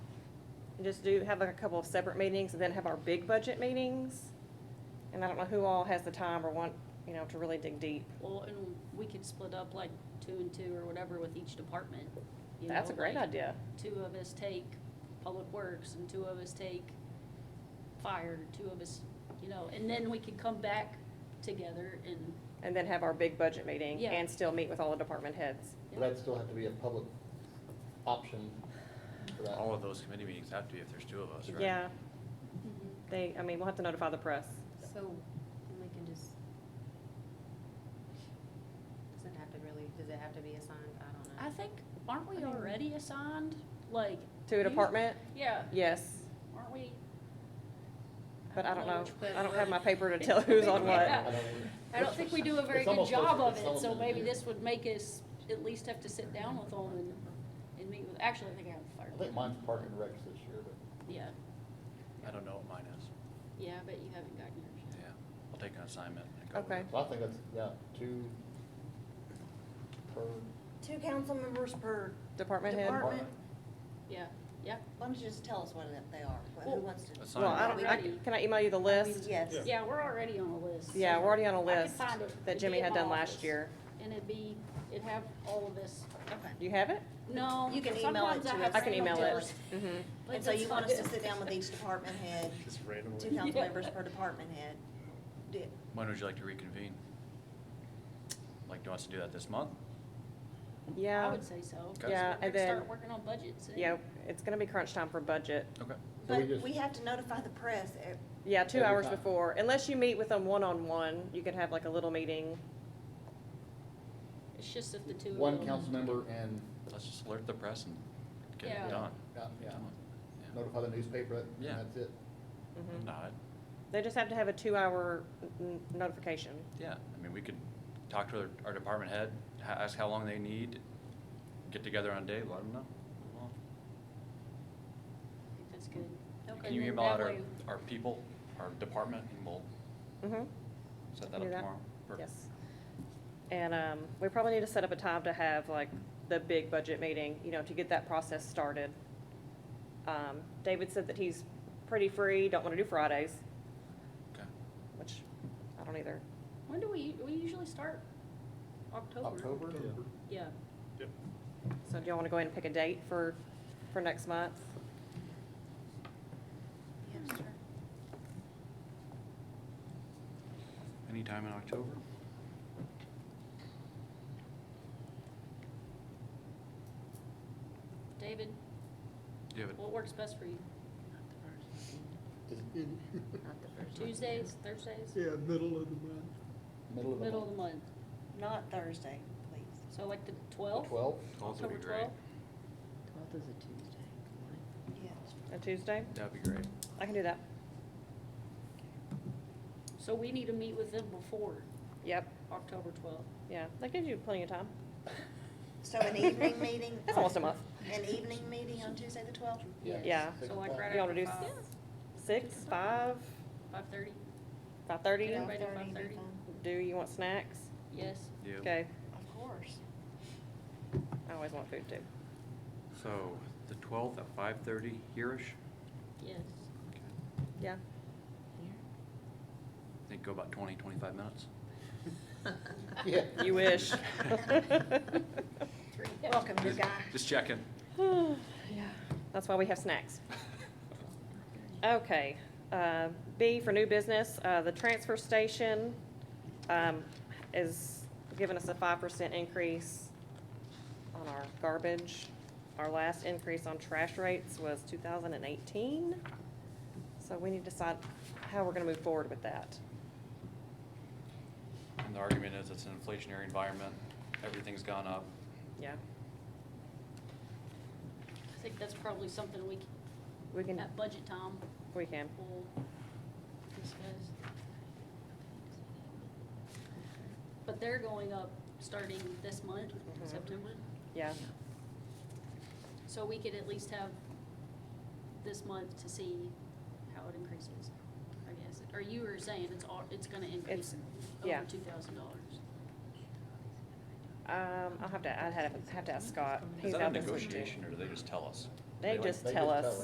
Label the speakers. Speaker 1: and just do, have like a couple of separate meetings, and then have our big budget meetings. And I don't know who all has the time or want, you know, to really dig deep.
Speaker 2: Well, and we could split up like two and two or whatever with each department. you
Speaker 1: That's a
Speaker 2: know,
Speaker 1: great
Speaker 2: like,
Speaker 1: idea.
Speaker 2: Two of us take public works and two of us take fire, two of us, you know, and then we could come back together and,
Speaker 1: And then have our big budget meeting
Speaker 2: Yeah.
Speaker 1: and still meet with all the department heads.
Speaker 2: Yeah.
Speaker 3: But that'd still have to be a public option for that.
Speaker 4: All of those committee meetings have to be if there's two of us, right?
Speaker 1: Yeah, they, I mean, we'll have to notify the press.
Speaker 5: Mm-hmm. So, and we can just, doesn't have to really, does it have to be assigned? I don't know.
Speaker 2: I think, aren't we already assigned, like?
Speaker 1: To a
Speaker 2: you-
Speaker 1: department,
Speaker 2: Yeah,
Speaker 1: yes,
Speaker 2: aren't we?
Speaker 1: but I don't know,
Speaker 2: which-
Speaker 5: but
Speaker 1: I don't have my
Speaker 5: we're-
Speaker 1: paper to tell who's on what.
Speaker 2: Yeah.
Speaker 3: I don't-
Speaker 2: I don't think we do a very
Speaker 3: It's
Speaker 2: good
Speaker 3: almost
Speaker 2: job
Speaker 3: like
Speaker 2: of
Speaker 3: it's
Speaker 2: it, so
Speaker 3: something to
Speaker 2: maybe
Speaker 3: do.
Speaker 2: this would make us at least have to sit down with them and, and meet with, actually, I think I have a fire.
Speaker 3: I think mine's Park and Recs this year, but
Speaker 2: Yeah,
Speaker 4: I don't know what mine is.
Speaker 2: yeah, I bet you haven't gotten yours
Speaker 4: Yeah,
Speaker 2: yet.
Speaker 4: I'll take an assignment and go with
Speaker 1: Okay.
Speaker 4: it.
Speaker 3: so I think that's, yeah, two per.
Speaker 6: Two council members per
Speaker 1: Department head?
Speaker 6: Department.
Speaker 2: Yeah, yeah,
Speaker 6: Why don't you just tell us what it- they are, wh-
Speaker 2: Well-
Speaker 6: who wants to?
Speaker 4: Assign-
Speaker 1: Well, I don't, I,
Speaker 2: Already.
Speaker 1: can I email you the list?
Speaker 6: Yes.
Speaker 2: yeah, we're already on a list. so
Speaker 1: Yeah, we're already on a
Speaker 2: I could
Speaker 1: list
Speaker 2: find it.
Speaker 1: that
Speaker 2: It'd
Speaker 1: Jimmy
Speaker 2: be in
Speaker 1: had
Speaker 2: my
Speaker 1: done
Speaker 2: office.
Speaker 1: last year.
Speaker 2: And it'd be, it'd have all of this,
Speaker 6: Okay.
Speaker 1: You have it?
Speaker 2: no,
Speaker 6: You can email it
Speaker 2: sometimes I
Speaker 6: to
Speaker 2: have.
Speaker 6: us.
Speaker 1: I can
Speaker 2: random
Speaker 1: email it.
Speaker 2: doors,
Speaker 1: Mhm.
Speaker 2: but
Speaker 6: And so
Speaker 2: that's
Speaker 6: you want
Speaker 2: not
Speaker 6: us to
Speaker 2: it.
Speaker 6: sit down with each department head,
Speaker 4: Just
Speaker 6: two
Speaker 4: randomly.
Speaker 6: council
Speaker 2: Yeah.
Speaker 6: members per department head? Do-
Speaker 4: When would you like to reconvene? Like, do you want us to do that this month?
Speaker 2: I
Speaker 1: Yeah,
Speaker 2: would say so. 'cause
Speaker 4: Okay.
Speaker 1: Yeah,
Speaker 2: we're
Speaker 1: and
Speaker 2: gonna
Speaker 1: then-
Speaker 2: Start working on budgets. and-
Speaker 1: yeah, it's gonna be crunch time for budget.
Speaker 4: Okay.
Speaker 3: So we
Speaker 6: But
Speaker 3: just-
Speaker 6: we have to notify the press. eh,
Speaker 1: Yeah, two
Speaker 3: Every
Speaker 1: hours
Speaker 3: time.
Speaker 1: before, unless you meet with them one-on-one, you can have like a little meeting.
Speaker 2: It's just if the two of them.
Speaker 3: One council member and,
Speaker 4: Let's just alert the press and get
Speaker 2: Yeah.
Speaker 4: it done.
Speaker 3: yeah, yeah,
Speaker 4: Done. Yeah.
Speaker 3: notify the newspaper, and
Speaker 4: Yeah.
Speaker 3: that's it.
Speaker 1: Mhm.
Speaker 4: No, I-
Speaker 1: They just have to have a two-hour n- notification.
Speaker 4: yeah, I mean, we could talk to our, our department head, ha- ask how long they need, get together on a day, let them know. Well,
Speaker 2: I think That's good.
Speaker 4: Can you
Speaker 2: And then
Speaker 4: email out
Speaker 2: that
Speaker 4: our,
Speaker 2: way-
Speaker 4: our people, our department, and we'll
Speaker 1: Mm-hmm.
Speaker 4: set that
Speaker 1: Do
Speaker 4: up
Speaker 1: that?
Speaker 4: tomorrow? Perfect.
Speaker 1: Yes. And, um, we probably need to set up a time to have like the big budget meeting, you know, to get that process started. Um, David said that he's pretty free, don't wanna do Fridays,
Speaker 4: Okay.
Speaker 1: which I don't either.
Speaker 2: When do we, we usually start? October.
Speaker 3: October,
Speaker 2: Yeah.
Speaker 1: So do y'all wanna go ahead and pick a date for, for next month?
Speaker 2: Yeah, sure.
Speaker 4: Anytime in October?
Speaker 2: David,
Speaker 4: Do you have
Speaker 2: what works best for you?
Speaker 3: Is it
Speaker 5: Not the first one.
Speaker 2: Tuesdays, Thursdays?
Speaker 7: Yeah, middle of the month.
Speaker 3: middle of the month?
Speaker 2: Middle of the month.
Speaker 6: Not Thursday, please.
Speaker 2: So like the twelfth?
Speaker 3: Twelve?
Speaker 4: a?
Speaker 2: October twelfth?
Speaker 5: Twelfth is a Tuesday.
Speaker 6: Yeah.
Speaker 1: A Tuesday?
Speaker 4: That'd be great.
Speaker 1: I can do that.
Speaker 2: So we need to meet with them before
Speaker 1: Yep,
Speaker 2: October twelfth.
Speaker 1: yeah, that gives you plenty of time.
Speaker 6: So an evening meeting?
Speaker 1: That's almost a month.
Speaker 6: An evening meeting on Tuesday, the twelfth?
Speaker 1: Yeah.
Speaker 3: Six
Speaker 2: So like
Speaker 3: o'clock.
Speaker 2: right
Speaker 1: You wanna
Speaker 2: after
Speaker 1: do
Speaker 2: five,
Speaker 1: Six, five,
Speaker 2: five thirty?
Speaker 1: five-thirty?
Speaker 2: Yeah. Everybody do five-thirty?
Speaker 1: Do you want snacks?
Speaker 2: Yes.
Speaker 4: Yeah.
Speaker 1: Okay,
Speaker 6: Of course.
Speaker 1: I always want food too.
Speaker 4: So, the twelfth at five thirty here-ish?
Speaker 2: Yes.
Speaker 4: Okay.
Speaker 1: Yeah.
Speaker 4: Think go about twenty, twenty-five minutes?
Speaker 3: Yeah.
Speaker 1: You wish.
Speaker 6: Welcome, new
Speaker 4: Just-
Speaker 6: guy.
Speaker 4: Just checking.
Speaker 1: Yeah, that's why we have snacks. Okay, uh, B for new business, uh, the transfer station, um, is giving us a five percent increase on our garbage. Our last increase on trash rates was two thousand and eighteen, so we need to decide how we're gonna move forward with that.
Speaker 4: And the argument is it's an inflationary environment, everything's gone up.
Speaker 1: Yeah,
Speaker 2: I think that's probably something we
Speaker 1: we
Speaker 2: can,
Speaker 1: can,
Speaker 2: at budget time,
Speaker 1: we can.
Speaker 2: we'll discuss. But they're going up starting this month,
Speaker 1: Mhm.
Speaker 2: September.
Speaker 1: Yeah,
Speaker 2: So we could at least have this month to see how it increases, I guess. Or you were saying it's all, it's gonna increase
Speaker 1: It's- yeah.
Speaker 2: over two thousand dollars.
Speaker 1: um, I'll have to, I'd have, have to ask Scott.
Speaker 4: Is
Speaker 1: He's
Speaker 4: that a
Speaker 1: out this week, too.
Speaker 4: negotiation or do they just tell us?
Speaker 1: They
Speaker 4: They
Speaker 1: just
Speaker 3: They
Speaker 1: tell
Speaker 3: just
Speaker 1: us.
Speaker 3: tell